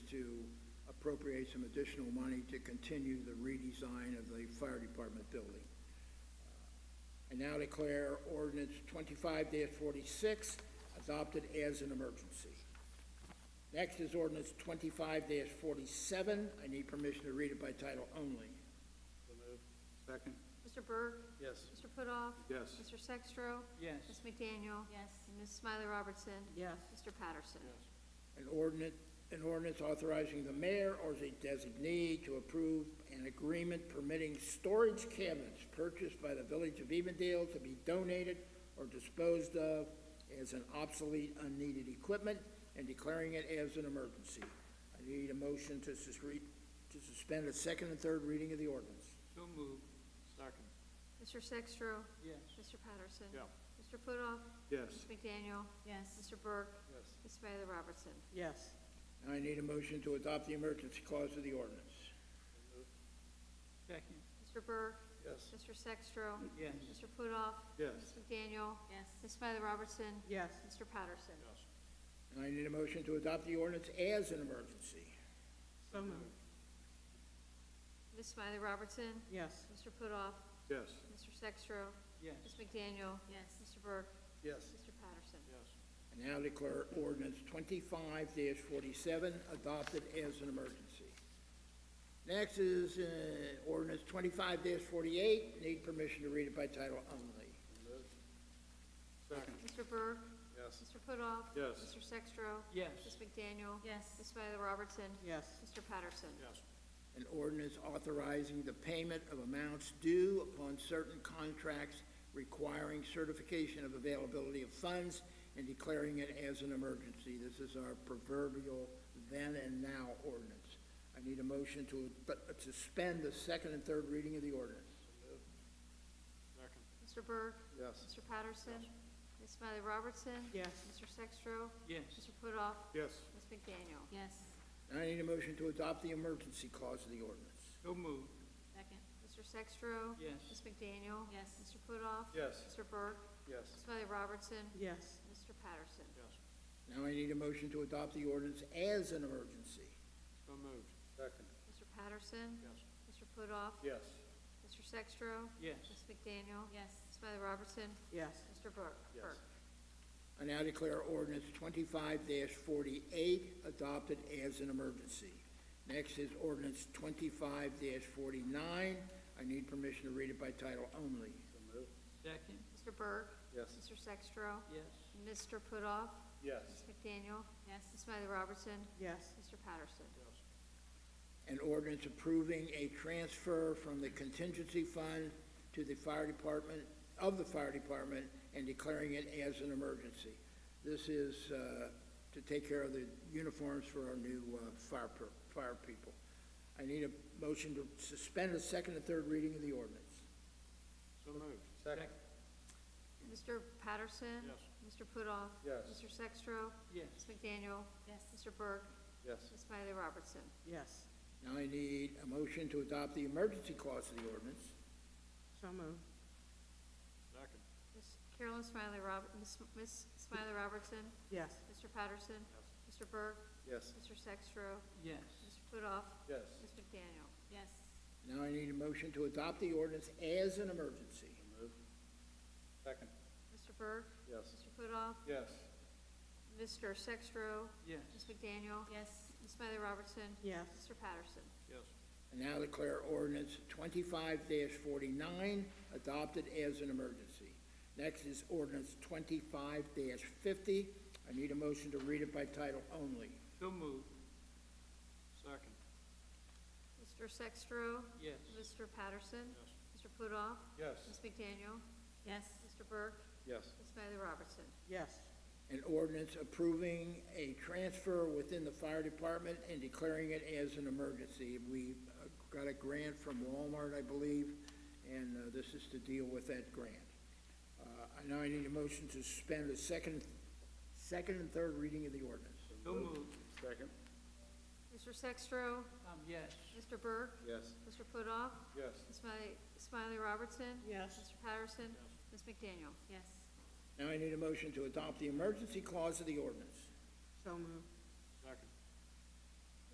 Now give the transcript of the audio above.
appropriate some additional money to continue the redesign of the fire department building. I now declare ordinance twenty-five forty-six adopted as an emergency. Next is ordinance twenty-five forty-seven. I need permission to read it by title only. So moved. Second? Mr. Burke? Yes. Mr. Putoff? Yes. Mr. Sextro? Yes. Ms. McDaniel? Yes. And Ms. Smiley Robertson? Yes. Mr. Patterson? An ordinance, an ordinance authorizing the mayor or his designee to approve an agreement permitting storage cabinets purchased by the village of Evendale to be donated or disposed of as an obsolete, unneeded equipment and declaring it as an emergency. I need a motion to susre- to suspend the second and third reading of the ordinance. So moved. Second? Mr. Sextro? Yes. Mr. Patterson? Yeah. Mr. Putoff? Yes. Ms. McDaniel? Yes. Mr. Burke? Yes. Ms. Smiley Robertson? Yes. Now I need a motion to adopt the emergency clause of the ordinance. Second. Mr. Burke? Yes. Mr. Sextro? Yes. Mr. Putoff? Yes. Ms. McDaniel? Yes. Ms. Smiley Robertson? Yes. Mr. Patterson? And I need a motion to adopt the ordinance as an emergency. So moved. Ms. Smiley Robertson? Yes. Mr. Putoff? Yes. Mr. Sextro? Yes. Ms. McDaniel? Yes. Mr. Burke? Yes. Mr. Patterson? Yes. I now declare ordinance twenty-five forty-seven adopted as an emergency. Next is, uh, ordinance twenty-five forty-eight, need permission to read it by title only. Second? Mr. Burke? Yes. Mr. Putoff? Yes. Mr. Sextro? Yes. Ms. McDaniel? Ms. Yes. Smiley Robertson? Yes. Mr. Patterson? Yes. An ordinance authorizing the payment of amounts due upon certain contracts requiring certification of availability of funds and declaring it as an emergency. This is our proverbial then and now ordinance. I need a motion to, but, to suspend the second and third reading of the ordinance. Second? Mr. Burke? Yes. Mr. Patterson? Ms. Smiley Robertson? Yes. Mr. Sextro? Yes. Mr. Putoff? Yes. Ms. McDaniel? Yes. And I need a motion to adopt the emergency clause of the ordinance. So moved. Second. Mr. Sextro? Yes. Ms. McDaniel? Yes. Mr. Putoff? Yes. Mr. Burke? Yes. Ms. Smiley Robertson? Yes. Mr. Patterson? Yes. Now I need a motion to adopt the ordinance as an emergency. So moved. Second? Mr. Patterson? Yes. Mr. Putoff? Yes. Mr. Sextro? Yes. Ms. McDaniel? Yes. Ms. Smiley Robertson? Yes. Mr. Burke? Yes. Burke. I now declare ordinance twenty-five forty-eight adopted as an emergency. Next is ordinance twenty-five forty-nine. I need permission to read it by title only. So moved. Second. Mr. Burke? Yes. Mr. Sextro? Yes. Mr. Putoff? Yes. Ms. McDaniel? Yes. Ms. Smiley Robertson? Yes. Mr. Patterson? An ordinance approving a transfer from the contingency fund to the fire department, of the fire department, and declaring it as an emergency. This is, uh, to take care of the uniforms for our new, uh, fire per, fire people. I need a motion to suspend the second and third reading of the ordinance. So moved. Second? Mr. Patterson? Yes. Mr. Putoff? Yes. Mr. Sextro? Yes. Ms. McDaniel? Yes. Mr. Burke? Yes. Ms. Smiley Robertson? Yes. Now I need a motion to adopt the emergency clause of the ordinance. So moved. Second? Ms. Carolyn Smiley Rob, Ms. Ms. Smiley Robertson? Yes. Mr. Patterson? Mr. Burke? Yes. Mr. Sextro? Yes. Mr. Putoff? Yes. Ms. McDaniel? Yes. Now I need a motion to adopt the ordinance as an emergency. So moved. Second? Mr. Burke? Yes. Mr. Putoff? Yes. Mr. Sextro? Yes. Ms. McDaniel? Yes. Ms. Smiley Robertson? Yes. Mr. Patterson? Yes. And now declare ordinance twenty-five forty-nine adopted as an emergency. Next is ordinance twenty-five fifty. I need a motion to read it by title only. So moved. Second? Mr. Sextro? Yes. Mr. Patterson? Yes. Mr. Putoff? Yes. Ms. McDaniel? Yes. Mr. Burke? Yes. Ms. Smiley Robertson? Yes. An ordinance approving a transfer within the fire department and declaring it as an emergency. We uh, got a grant from Walmart, I believe, and uh, this is to deal with that grant. Uh, I now I need a motion to suspend the second, second and third reading of the ordinance. So moved. Second? Mr. Sextro? Um, yes. Mr. Burke? Yes. Mr. Putoff? Yes. Ms. Smiley, Smiley Robertson? Yes. Mr. Patterson? Ms. McDaniel? Yes. Now I need a motion to adopt the emergency clause of the ordinance. So moved.